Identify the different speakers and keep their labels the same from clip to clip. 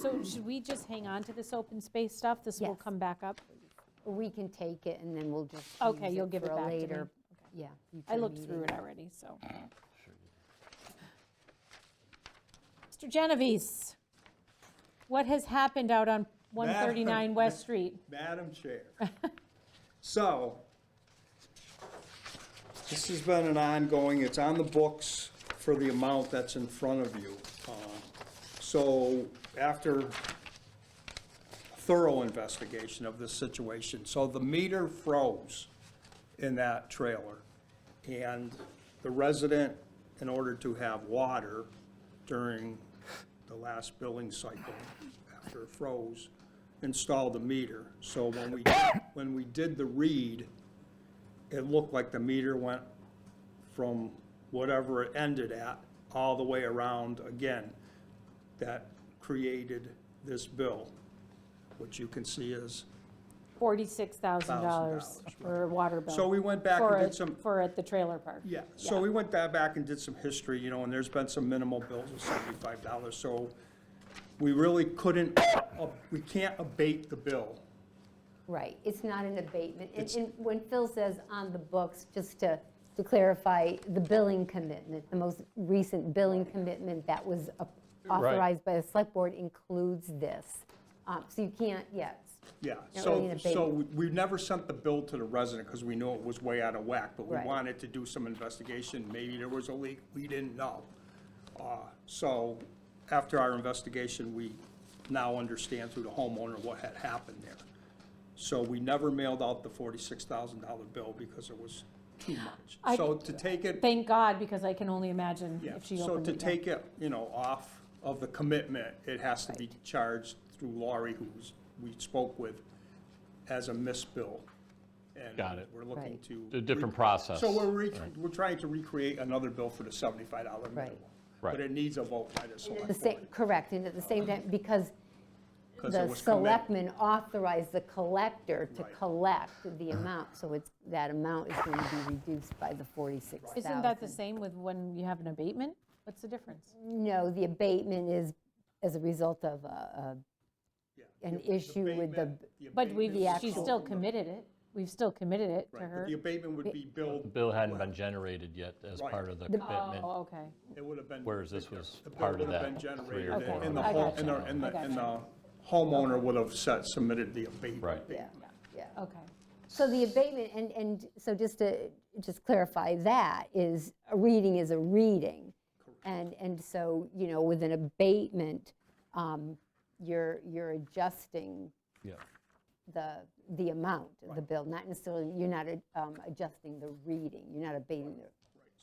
Speaker 1: So should we just hang on to this open space stuff? This will
Speaker 2: Yes.
Speaker 1: come back up?
Speaker 2: We can take it and then we'll just
Speaker 1: Okay,
Speaker 2: use
Speaker 1: you'll give
Speaker 2: for
Speaker 1: it
Speaker 2: a
Speaker 1: back to me.
Speaker 2: later. Yeah.
Speaker 1: I
Speaker 2: future
Speaker 1: looked through
Speaker 2: meeting.
Speaker 1: it already, so. Mr. Genovese, what has happened out on 139 West Street?
Speaker 3: Madam Chair. So, this has been an ongoing, it's on the books for the amount that's in front of you. Uh, So, after thorough investigation of this situation, so the meter froze in that trailer. And the resident, in order to have water during the last billing cycle after it froze, installed the meter. So when we, when we did the read, it looked like the meter went from whatever it ended at, all the way around again. That created this bill, which you can see is
Speaker 1: $46,000
Speaker 3: right.
Speaker 1: for a water bill.
Speaker 3: So we went back and
Speaker 1: for
Speaker 3: did
Speaker 1: a-
Speaker 3: some-
Speaker 1: For at the trailer park.
Speaker 3: Yeah, so we went that back and did some history, you know, and there's been some minimal bills of seventy-five dollars, so we really couldn't, uh, we can't abate the bill.
Speaker 2: Right, it's not an abatement. And-
Speaker 3: It's-
Speaker 2: And when Phil says on the books, just to, to clarify, the billing commitment, the most recent billing commitment that was a- authorized by the select board includes this. Um, So you can't, yeah, it's-
Speaker 3: Yeah,
Speaker 2: Not really
Speaker 3: so,
Speaker 2: an
Speaker 3: so we we never sent the bill to the resident because we knew it was way out of whack, but we
Speaker 2: Right.
Speaker 3: wanted to do some investigation. Maybe there was a leak, we didn't know. Uh, So after our investigation, we now understand through the homeowner what had happened there. So we never mailed out the forty-six thousand dollar bill because it was too
Speaker 1: I-
Speaker 3: much. So to take it,
Speaker 1: Thank God, because I can only imagine
Speaker 3: yeah,
Speaker 1: if she
Speaker 3: so
Speaker 1: opened
Speaker 3: to
Speaker 1: it. yeah.
Speaker 3: take it, you know, off of the commitment, it has to be charged through Laurie, who was- we spoke with, as a missed bill. And
Speaker 4: Got it.
Speaker 3: We're looking
Speaker 2: Right.
Speaker 3: to.
Speaker 4: A different process.
Speaker 3: So we're, re- we're trying to recreate another bill for the seventy-five dollar
Speaker 2: Right.
Speaker 3: minimum.
Speaker 4: Right.
Speaker 3: But it needs a vote by the
Speaker 2: the
Speaker 3: select
Speaker 2: same,
Speaker 3: board.
Speaker 2: correct, and at the same time, because
Speaker 3: 'cause it
Speaker 2: the
Speaker 3: was committed.
Speaker 2: selectmen authorized the collector to
Speaker 3: Right.
Speaker 2: collect the amount, so it's, that amount is going to be reduced by the 46,000.
Speaker 1: Isn't that the same with when you have an abatement? What's the difference?
Speaker 2: No, the abatement is as a result of a-
Speaker 3: Yeah.
Speaker 2: a- an
Speaker 3: The
Speaker 2: issue with the,
Speaker 3: abatement- the
Speaker 1: But we've,
Speaker 3: abatement
Speaker 2: The
Speaker 1: she's
Speaker 2: actual-
Speaker 1: still committed it. We've still committed it to
Speaker 3: Right, but
Speaker 1: her.
Speaker 3: the abatement would be
Speaker 4: The
Speaker 3: billed,
Speaker 4: bill hadn't been generated yet as
Speaker 3: Right.
Speaker 4: part of the commitment,
Speaker 1: Oh, okay.
Speaker 3: it would have been.
Speaker 4: whereas this was
Speaker 3: The bill
Speaker 4: part of
Speaker 3: would have been
Speaker 4: that three
Speaker 3: generated,
Speaker 4: or
Speaker 1: Okay.
Speaker 4: four
Speaker 3: and- and the
Speaker 1: I
Speaker 4: hundred.
Speaker 3: home,
Speaker 1: gotcha.
Speaker 3: and the, and
Speaker 1: I
Speaker 3: the- and the
Speaker 1: gotcha.
Speaker 3: homeowner would have set, submitted the abatement.
Speaker 4: Right.
Speaker 2: yeah, yeah.
Speaker 1: Okay.
Speaker 2: So the abatement, and, and so just to, just clarify that, is, a reading is a reading. And, and so, you know, with an abatement, um, you're, you're adjusting
Speaker 4: Yeah.
Speaker 2: the, the amount of the bill, not necessarily, you're not um, adjusting the reading, you're not abating the,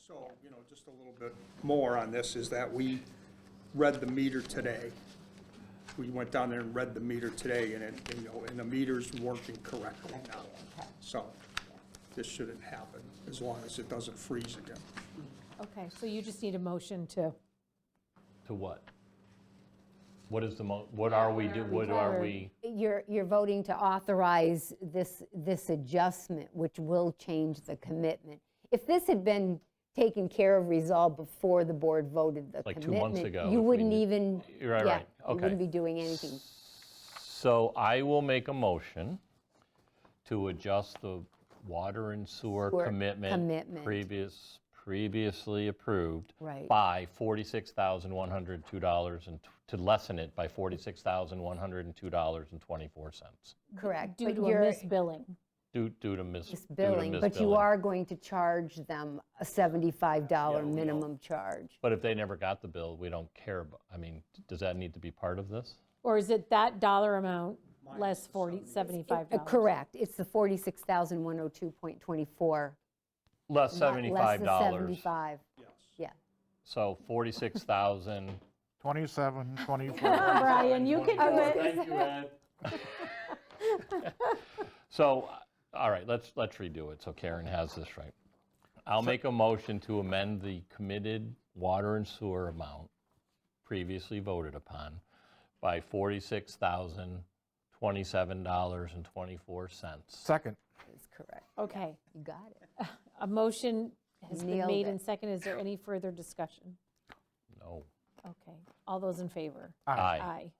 Speaker 3: So, you know, just a little bit more on this is that we read the meter today. We went down there and read the meter today, and it, you know, and the meter's working correctly now. So this shouldn't happen, as long as it doesn't freeze again.
Speaker 1: Okay, so you just need a motion to,
Speaker 4: To what? What is the mo, what are we, do- what are
Speaker 1: Or-
Speaker 4: we?
Speaker 2: You're, you're voting to authorize this, this adjustment, which will change the commitment. If this had been taken care of, resolved before the board voted the
Speaker 4: Like
Speaker 2: commitment.
Speaker 4: two months ago,
Speaker 2: You
Speaker 4: if we
Speaker 2: wouldn't
Speaker 4: knew-
Speaker 2: even.
Speaker 4: You're right,
Speaker 2: yeah,
Speaker 4: right,
Speaker 2: You wouldn't
Speaker 4: okay.
Speaker 2: be doing anything.
Speaker 4: So I will make a motion to adjust the water and sewer
Speaker 2: Sewer
Speaker 4: commitment.
Speaker 2: commitment.
Speaker 4: Previous, previously approved.
Speaker 2: Right.
Speaker 4: By $46,102 and, t- to lessen it by $46,102.24
Speaker 2: Correct.
Speaker 1: due
Speaker 2: but
Speaker 1: to a
Speaker 2: you're-
Speaker 1: misbilling.
Speaker 4: due, due to mis. due to
Speaker 2: Billing, but you
Speaker 4: misbilling.
Speaker 2: are going to charge them a $75 minimum charge.
Speaker 4: But if they never got the bill, we don't care, abo- I mean, does that need to be part of this?
Speaker 1: Or is it that dollar amount less 40, $75?
Speaker 2: Uh, Correct. It's the 46,102.24.
Speaker 4: Less
Speaker 2: not
Speaker 4: $75.
Speaker 2: Less than 75.
Speaker 3: Yes.
Speaker 2: Yeah.
Speaker 4: So 46,000.
Speaker 5: 27, 24.
Speaker 1: Brian, you can do it.
Speaker 4: Thank you, Ed. So, uh, all right, let's, let's redo it, so Karen has this right. I'll make a motion to amend the committed water and sewer amount previously voted upon by $46,027.24.
Speaker 5: Second.
Speaker 2: That's correct.
Speaker 1: Okay,
Speaker 2: You got it.
Speaker 1: a motion has been
Speaker 2: Nailed
Speaker 1: made
Speaker 2: it.
Speaker 1: and second. Is there any further discussion?
Speaker 4: No.
Speaker 1: Okay, all those in favor?
Speaker 4: Aye.
Speaker 1: Aye.